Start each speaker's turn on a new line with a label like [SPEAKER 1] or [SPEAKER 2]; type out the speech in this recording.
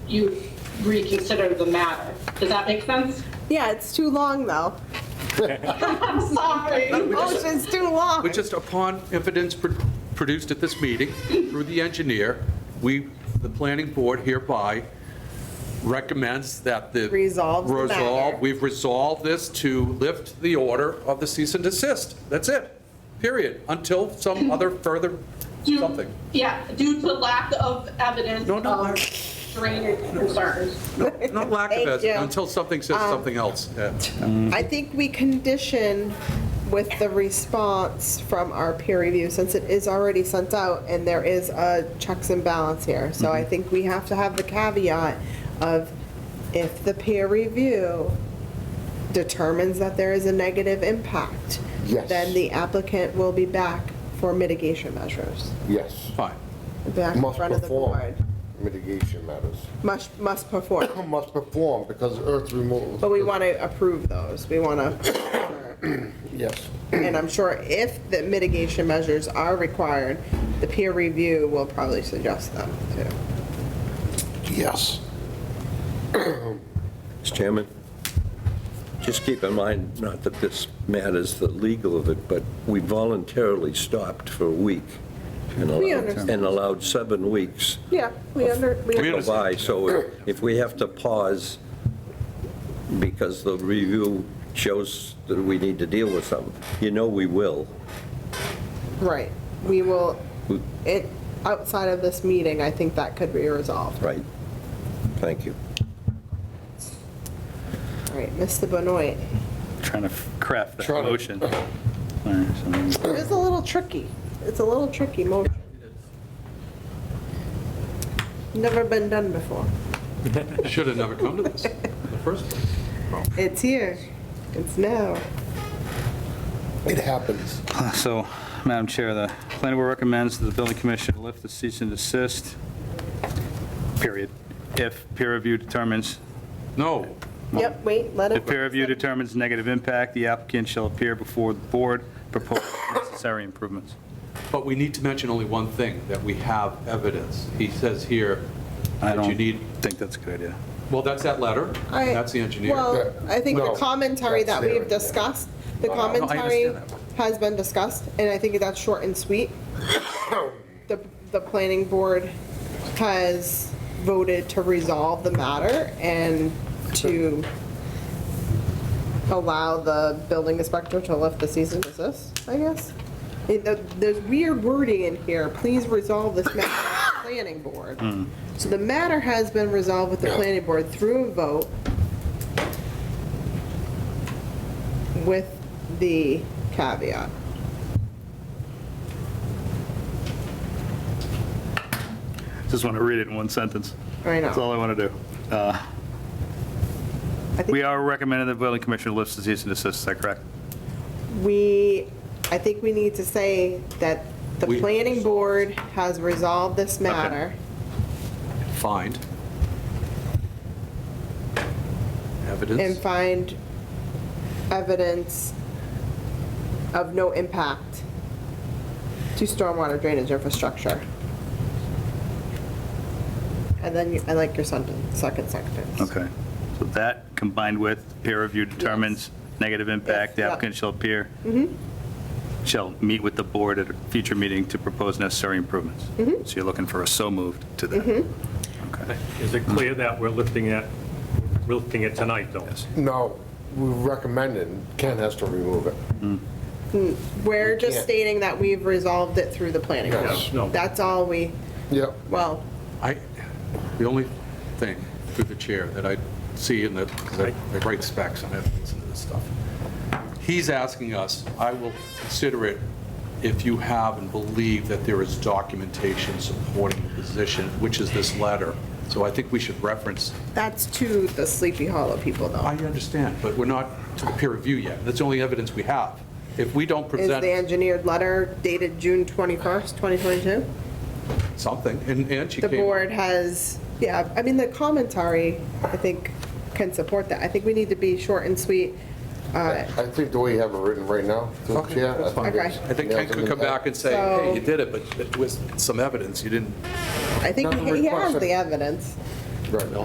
[SPEAKER 1] you reconsider the matter. Does that make sense?
[SPEAKER 2] Yeah, it's too long, though.
[SPEAKER 1] I'm sorry.
[SPEAKER 2] Motion's too long.
[SPEAKER 3] But just upon evidence pro- produced at this meeting through the engineer, we, the planning board hereby recommends that the.
[SPEAKER 2] Resolves the matter.
[SPEAKER 3] Resolve, we've resolved this to lift the order of the cease and desist. That's it, period, until some other further
[SPEAKER 1] Due-
[SPEAKER 3] something.
[SPEAKER 1] Yeah, due to lack of evidence
[SPEAKER 3] No, no.
[SPEAKER 1] of drainage concerns.
[SPEAKER 3] No, Not lack of
[SPEAKER 2] Thank
[SPEAKER 3] it,
[SPEAKER 2] you. Um,
[SPEAKER 3] until something says something else, yeah.
[SPEAKER 4] Mm.
[SPEAKER 2] I think we condition with the response from our peer review, since it is already sent out and there is a checks and balance here. So
[SPEAKER 4] Mm-hmm.
[SPEAKER 2] I think we have to have the caveat of if the peer review determines that there is a negative impact,
[SPEAKER 4] Yes.
[SPEAKER 2] then the applicant will be back for mitigation measures,
[SPEAKER 4] Yes.
[SPEAKER 3] Fine,
[SPEAKER 2] back in
[SPEAKER 4] Must
[SPEAKER 2] front of the
[SPEAKER 4] perform
[SPEAKER 2] board.
[SPEAKER 4] mitigation matters.
[SPEAKER 2] Must, must perform.
[SPEAKER 4] Must perform because earth removal.
[SPEAKER 2] But we want to approve those. We want to
[SPEAKER 4] Yes.
[SPEAKER 2] And I'm sure if the mitigation measures are required, the peer review will probably suggest them too.
[SPEAKER 4] Yes.
[SPEAKER 5] Mr. Chairman, just keep in mind, not that this matters the legal of it, but we voluntarily stopped for a week and
[SPEAKER 2] We
[SPEAKER 5] allowed,
[SPEAKER 2] understand.
[SPEAKER 5] and allowed seven weeks
[SPEAKER 2] Yeah, we under, we
[SPEAKER 5] to go
[SPEAKER 3] understand.
[SPEAKER 5] by, so if we have to pause because the review shows that we need to deal with something, you know we will.
[SPEAKER 2] right. We will,
[SPEAKER 5] We-
[SPEAKER 2] it, outside of this meeting, I think that could be resolved.
[SPEAKER 5] Right. Thank you.
[SPEAKER 2] All right, Mr. Benoit.
[SPEAKER 6] Trying to craft that
[SPEAKER 4] Trying to-
[SPEAKER 6] motion. All right, so-
[SPEAKER 2] It's a little tricky. It's a little tricky motion. Never been done before.
[SPEAKER 3] should have never come to this in the first place.
[SPEAKER 2] It's here. It's now.
[SPEAKER 4] It happens.
[SPEAKER 6] So, Madam Chair, the planning board recommends that the building commission lift the cease and desist, period, if peer review determines,
[SPEAKER 3] No,
[SPEAKER 2] Yep, wait, let
[SPEAKER 6] if
[SPEAKER 2] it.
[SPEAKER 6] peer review determines negative impact, the applicant shall appear before the board, propose necessary improvements.
[SPEAKER 3] But we need to mention only one thing, that we have evidence. He says here
[SPEAKER 6] I
[SPEAKER 3] that you
[SPEAKER 6] don't
[SPEAKER 3] need,
[SPEAKER 6] think that's a good idea.
[SPEAKER 3] well, that's that letter,
[SPEAKER 2] I-
[SPEAKER 3] that's the engineer.
[SPEAKER 2] Well, I think the
[SPEAKER 4] No,
[SPEAKER 2] commentary that
[SPEAKER 4] that's
[SPEAKER 2] we've
[SPEAKER 4] there, yeah.
[SPEAKER 2] discussed, the
[SPEAKER 4] No, no, I
[SPEAKER 2] commentary
[SPEAKER 3] understand
[SPEAKER 2] has been discussed, and I think that's short and sweet. The, the planning board has voted to resolve the matter and to allow the building inspector to lift the cease and desist, I guess. It- the- There's weird wording in here, please resolve this matter with the planning board.
[SPEAKER 3] Hmm.
[SPEAKER 2] So the matter has been resolved with the planning board through a vote with the caveat.
[SPEAKER 6] Just want to read it in one sentence.
[SPEAKER 2] I know.
[SPEAKER 6] That's all I want to do. Uh,
[SPEAKER 2] I think
[SPEAKER 6] We are recommending the building commission lifts the cease and desist, is that correct?
[SPEAKER 2] We, I think we need to say that the
[SPEAKER 3] We-
[SPEAKER 2] planning board has resolved this matter.
[SPEAKER 3] Find.
[SPEAKER 2] and
[SPEAKER 3] Evidence.
[SPEAKER 2] find evidence of no impact to stormwater drainage infrastructure. And then, you- I like your sentence, second sentence.
[SPEAKER 6] Okay. So that combined with peer review determines negative impact, the
[SPEAKER 2] Yes, Mm-hmm. yeah.
[SPEAKER 6] applicant shall appear, shall meet with the board at a future meeting to propose necessary improvements.
[SPEAKER 2] Mm-hmm.
[SPEAKER 6] So you're looking for a so moved to that. Okay.
[SPEAKER 7] Is it clear that we're lifting it, we're lifting it tonight, though?
[SPEAKER 4] No, we recommend it. Ken has to remove it.
[SPEAKER 2] We're just
[SPEAKER 4] can't-
[SPEAKER 2] stating that we've resolved it through the planning board.
[SPEAKER 4] Yes.
[SPEAKER 7] No.
[SPEAKER 2] That's all we,
[SPEAKER 4] Yep.
[SPEAKER 2] well,
[SPEAKER 3] I, the only thing through the chair that I see in the, 'cause I I write specs on evidence and this stuff. He's asking us, I will consider it if you have and believe that there is documentation supporting the position, which is this letter. So I think we should reference
[SPEAKER 2] that's to the Sleepy Hollow people
[SPEAKER 3] I
[SPEAKER 2] though,
[SPEAKER 3] understand, but we're not to the peer review yet. That's the only evidence we have. If we don't
[SPEAKER 2] is the
[SPEAKER 3] present
[SPEAKER 2] engineered letter dated June 21st, 2022?
[SPEAKER 3] something, and and she
[SPEAKER 2] the
[SPEAKER 3] came...
[SPEAKER 2] board has, yeah, I mean, the commentary, I think, can support that. I think we need to be short and sweet. Uh,
[SPEAKER 4] I think the way you have it written right now, through the
[SPEAKER 3] Okay,
[SPEAKER 4] chair,
[SPEAKER 3] that's fine.
[SPEAKER 2] Okay.
[SPEAKER 3] I think Ken could come back and say, hey, you did it, but with some evidence, you didn't...
[SPEAKER 2] I think
[SPEAKER 4] Nothing
[SPEAKER 2] he has
[SPEAKER 4] requested.
[SPEAKER 2] the evidence.
[SPEAKER 4] Right.